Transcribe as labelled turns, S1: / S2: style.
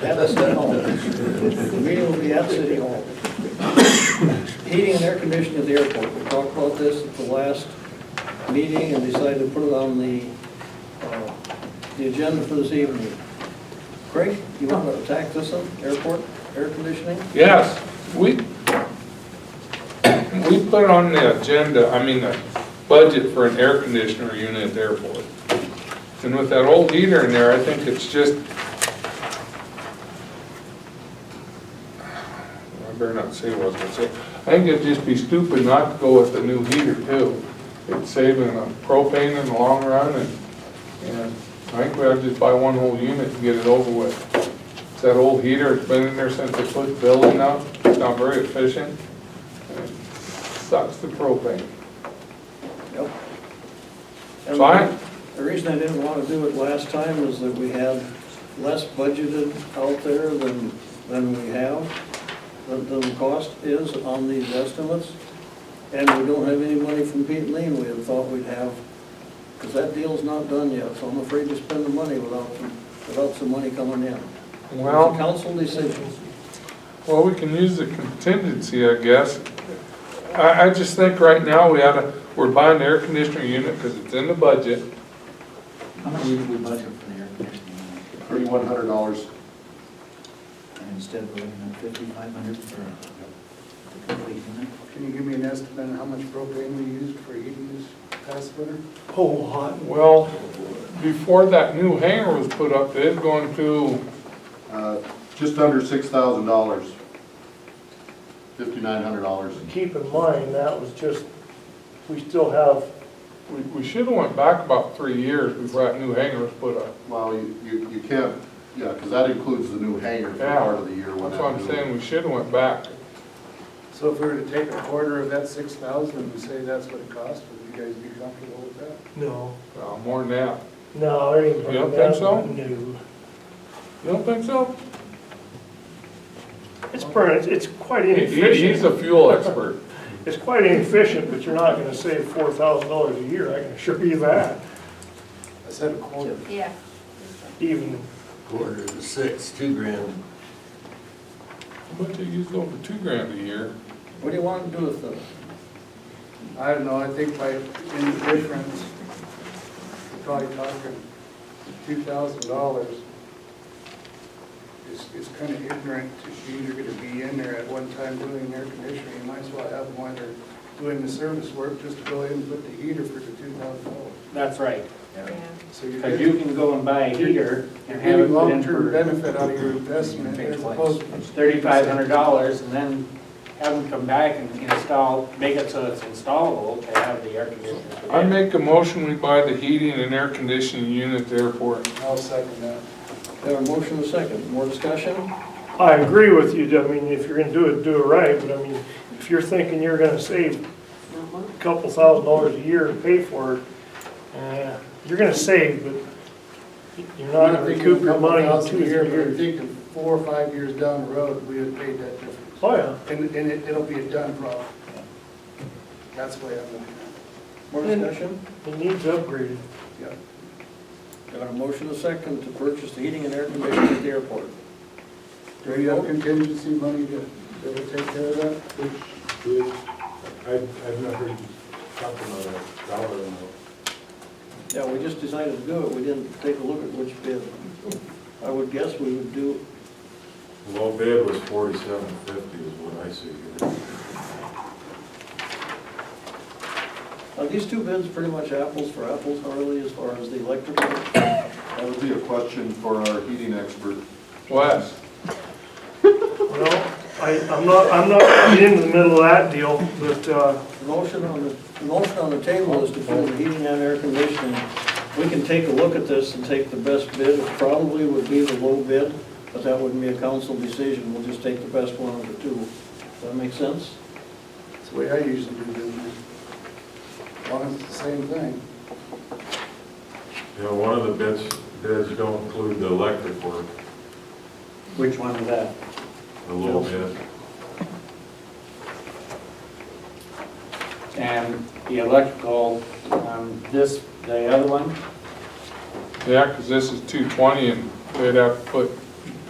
S1: That is their home. The meeting will be at City Hall. Heating and air conditioning at the airport. We talked about this at the last meeting and decided to put it on the, uh, the agenda for this evening. Craig, you want to attack this one, airport, air conditioning?
S2: Yes, we, we put on the agenda, I mean, the budget for an air conditioner unit at the airport. And with that old heater in there, I think it's just, I better not say what I was gonna say. I think it'd just be stupid not to go with the new heater too. It's saving on propane in the long run and, and I think we ought to just buy one whole unit and get it over with. It's that old heater, it's been in there since they put the building up, it's not very efficient. and it Sucks the propane.
S1: Yep. And
S2: Fine.
S1: The reason I didn't want to do it last time is that we had less budgeted out there than, than we have, than, than the cost is on these estimates. And we don't have any money from Pete and Lean we had thought we'd have, because that deal's not done yet, so I'm afraid to spend the money without, without some money coming in. It's a
S2: Well,
S1: council decision.
S2: well, we can use the contingency, I guess. I, I just think right now we oughta, we're buying the air conditioner unit because it's in the budget.
S3: How much did we budget for the air conditioning?
S4: Thirty-one hundred dollars.
S3: And instead of looking at fifty-five hundred for the complete unit?
S5: Can you give me an estimate on how much propane we used for heating this past winter?
S6: whole lot.
S2: Well, before that new hangar was put up, they was going to,
S4: Uh, just under six thousand dollars. Fifty-nine hundred dollars.
S6: Keep in mind, that was just, we still have,
S2: we, we should've went back about three years before that new hangar was put up.
S4: Well, you, you, you can't, yeah, because that includes the new hangar for
S2: Yeah.
S4: part of the year. when
S2: That's
S4: that
S2: what I'm
S4: new-
S2: saying, we should've went back.
S5: So if we were to take a quarter of that six thousand and say that's what it cost, would you guys be comfortable with that?
S6: no,
S2: Uh, more than that.
S6: no, it ain't.
S2: You don't think so?
S6: No.
S2: You don't think so?
S6: It's burnt, it's it's quite
S2: He- he- He's
S6: inefficient.
S2: a fuel expert.
S6: It's quite inefficient, but you're not gonna save four thousand dollars a year, I can assure you that,
S5: I said a quarter.
S7: Yeah.
S6: even.
S8: Quarter to six, two grand.
S2: But they use over two grand a year.
S1: What do you want to do with the
S5: I don't know, I think by, in the difference, we're probably talking two thousand dollars. It's, it's kind of ignorant if you're either gonna be in there at one time doing air conditioning, you might as well have them while they're doing the service work, just to go in and put the heater for the two thousand dollars.
S9: That's right,
S5: So you're
S9: because you can go and buy a heater and have it
S5: Getting
S9: put in
S5: long-term
S9: for
S5: benefit out of your investment as opposed to
S9: thirty-five hundred dollars, and then have them come back and install, make it so it's installable to have the air conditioner. for
S2: I
S9: that.
S2: make a motion, we buy the heating and air conditioning unit at the airport.
S5: I'll second that.
S1: Have a motion and a second, more discussion?
S6: I agree with you, I mean, if you're gonna do it, do it right, but I mean, if you're thinking you're gonna save a couple thousand dollars a year to pay for it, uh, you're gonna save, but you're not gonna recoup your money in two
S5: I
S6: years.
S5: think of four or five years down the road, we have paid that difference.
S6: Oh, yeah.
S5: And, and it, it'll be a done problem. That's the way I'm looking
S1: More
S6: Mm.
S1: discussion?
S6: It needs upgraded.
S5: at it.
S1: Got a motion and a second to purchase the heating and air conditioning at the airport.
S5: Yeah. Do you have contingency money to, to take care of that?
S8: Which is, I, I've not heard you talk about a dollar amount.
S1: Yeah, we just decided to do it, we didn't take a look at which bid. I would guess we would do,
S8: Low bid was forty-seven fifty is what I see here.
S1: are these two bids pretty much apples for apples, Harley, as far as the electrical?
S4: That would be a question for our heating expert.
S2: Wes,
S6: Well, I, I'm not, I'm not getting into the middle of that deal, but, uh,
S1: The Motion on the, the motion on the table is to put the heating and air conditioning. We can take a look at this and take the best bid, it probably would be the low bid, but that wouldn't be a council decision, we'll just take the best one of the two. Does that make sense?
S5: That's the way I usually do business. As long as it's the same thing.
S8: You know, one of the bids, bids don't include the electric work,
S9: Which one is that?
S8: a little bit.
S9: And the electrical, um, this, the other one,
S2: yeah, because this is two twenty and they'd have to put